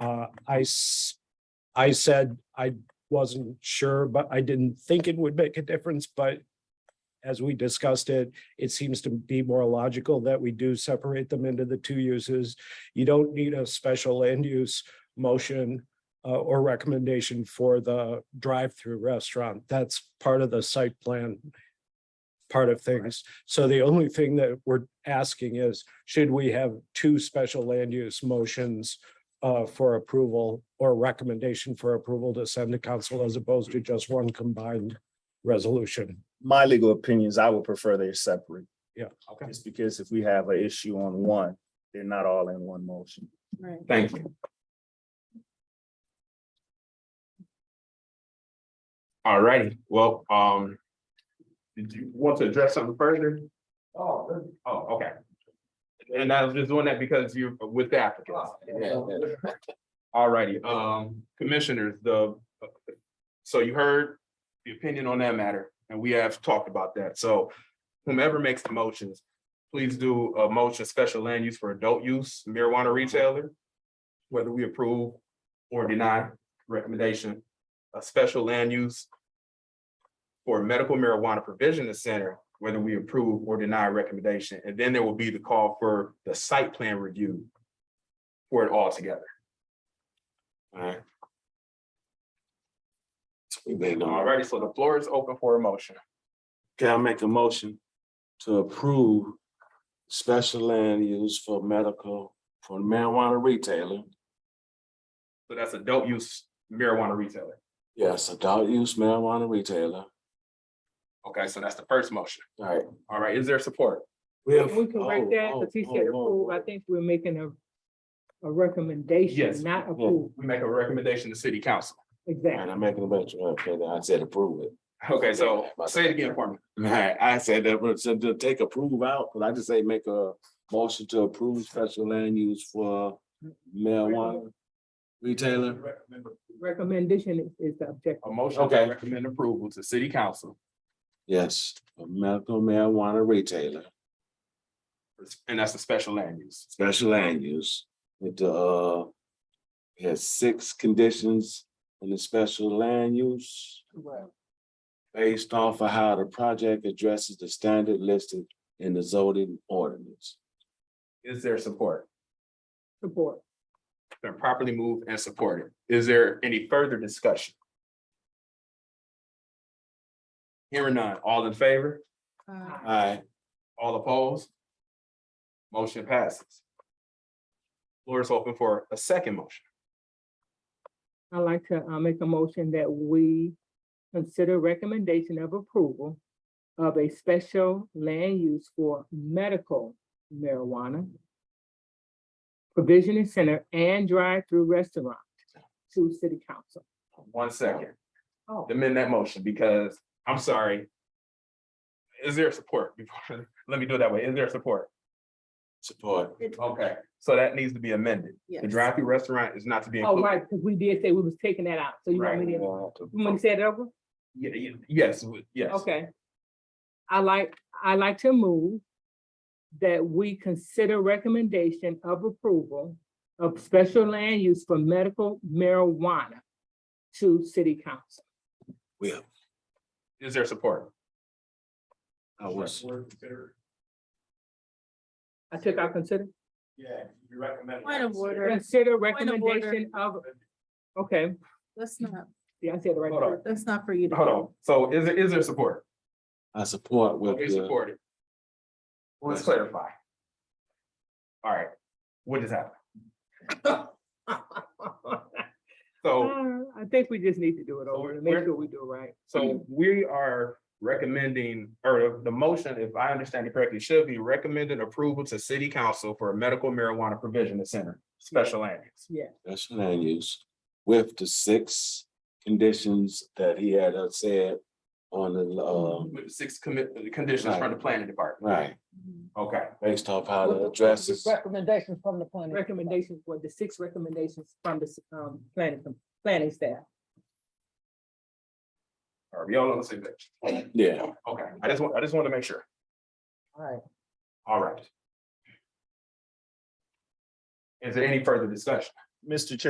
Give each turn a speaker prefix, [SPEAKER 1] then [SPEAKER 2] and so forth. [SPEAKER 1] Uh, I s- I said I wasn't sure, but I didn't think it would make a difference, but as we discussed it, it seems to be more logical that we do separate them into the two uses. You don't need a special land use motion uh, or recommendation for the drive-through restaurant. That's part of the site plan part of things. So the only thing that we're asking is, should we have two special land use motions uh, for approval or recommendation for approval to send to council as opposed to just one combined resolution?
[SPEAKER 2] my legal opinions, I would prefer they're separate.
[SPEAKER 1] Yeah, okay.
[SPEAKER 2] Just because if we have an issue on one, they're not all in one motion.
[SPEAKER 3] Right.
[SPEAKER 4] Thank you. All righty, well, um. Did you want to address something further? Oh. Oh, okay. And I was just doing that because you're with the applicants.
[SPEAKER 5] Oh,
[SPEAKER 4] All righty, um, commissioners, the, so you heard the opinion on that matter, and we have talked about that, so. Whomever makes the motions, please do a motion special land use for adult use marijuana retailer. Whether we approve or deny recommendation, a special land use. For medical marijuana provision center, whether we approve or deny recommendation, and then there will be the call for the site plan review. For it all together. Alright. Alrighty, so the floor is open for a motion.
[SPEAKER 5] Can I make a motion to approve special land use for medical, for marijuana retailer?
[SPEAKER 4] So that's adult use marijuana retailer.
[SPEAKER 5] Yes, adult use marijuana retailer.
[SPEAKER 4] Okay, so that's the first motion.
[SPEAKER 5] All right.
[SPEAKER 4] All right, is there support?
[SPEAKER 5] We
[SPEAKER 3] We can
[SPEAKER 5] oh,
[SPEAKER 3] write that, because he said approve, I think we're making a, a
[SPEAKER 4] Yes.
[SPEAKER 3] recommendation, not approve,
[SPEAKER 4] We make a recommendation to city council.
[SPEAKER 5] And
[SPEAKER 3] exactly.
[SPEAKER 5] I'm making a bunch of, okay, then I said approve it.
[SPEAKER 4] Okay, so say it again for me.
[SPEAKER 5] All right, I said that, but said to take approve out, but I just say make a motion to approve special land use for marijuana retailer.
[SPEAKER 3] Recommendation is- is the objective.
[SPEAKER 4] A motion to
[SPEAKER 5] Okay.
[SPEAKER 4] recommend approval to city council
[SPEAKER 5] Yes, a medical marijuana retailer,
[SPEAKER 4] and that's a special land use.
[SPEAKER 5] special land use. It uh has six conditions in the special land use based off of how the project addresses the standard listed in the zoning ordinance.
[SPEAKER 4] Is there support?
[SPEAKER 3] Support.
[SPEAKER 4] Been properly moved and supported. Is there any further discussion? Hearing none, all in favor, uh,
[SPEAKER 5] Aye.
[SPEAKER 4] all opposed? Motion passes. Floor is open for a second motion.
[SPEAKER 3] I'd like to, uh make a motion that we consider recommendation of approval of a special land use for medical marijuana provisioning center and drive-through restaurant to city council.
[SPEAKER 4] One second.
[SPEAKER 3] Oh.
[SPEAKER 4] amend that motion because, I'm sorry. Is there support? Before- Let me do it that way. Is there support?
[SPEAKER 5] Support.
[SPEAKER 4] Okay, so that needs to be amended. The drive-through restaurant is not to be
[SPEAKER 3] Oh,
[SPEAKER 4] included.
[SPEAKER 3] right, because we did say we was taking that out, so you want me to, you want me to say it over?
[SPEAKER 4] Ye- ye- Yes, w- yes.
[SPEAKER 3] Okay. I like, I like to move that we consider recommendation of approval of special land use for medical marijuana to city council.
[SPEAKER 5] Will,
[SPEAKER 4] Is there support?
[SPEAKER 5] I was,
[SPEAKER 3] I took out consider,
[SPEAKER 2] Yeah, you recommend.
[SPEAKER 6] Point of order,
[SPEAKER 3] consider
[SPEAKER 6] Point of order.
[SPEAKER 3] recommendation of, okay,
[SPEAKER 6] that's not,
[SPEAKER 3] yeah, I said the right.
[SPEAKER 4] Hold on.
[SPEAKER 3] word.
[SPEAKER 6] that's not for you to.
[SPEAKER 4] Hold on. So is there, is there support?
[SPEAKER 5] I support with
[SPEAKER 4] Okay,
[SPEAKER 5] the,
[SPEAKER 4] supported. Let's clarify. All right, what just happened? So,
[SPEAKER 3] Uh, I think we just need to do it
[SPEAKER 4] So
[SPEAKER 3] over to make
[SPEAKER 4] we're-
[SPEAKER 3] sure we do it right.
[SPEAKER 4] so we are recommending, or the motion, if I understand it correctly, should be recommended approval to city council for a medical marijuana provision center, special land use.
[SPEAKER 5] special land use with the six conditions that he had uh, said on the, um,
[SPEAKER 4] With the six commit, the conditions from the planning department.
[SPEAKER 5] right,
[SPEAKER 4] Okay,
[SPEAKER 5] based off how the addresses.
[SPEAKER 7] Recommendations from the planning.
[SPEAKER 3] Recommendations for the six recommendations from the, um, planning, planning staff.
[SPEAKER 4] are we all on the same page?
[SPEAKER 5] Yeah.
[SPEAKER 4] Okay, I just want, I just wanted to make sure.
[SPEAKER 7] All right.
[SPEAKER 4] All right. Is there any further discussion?
[SPEAKER 2] Mr. Chair,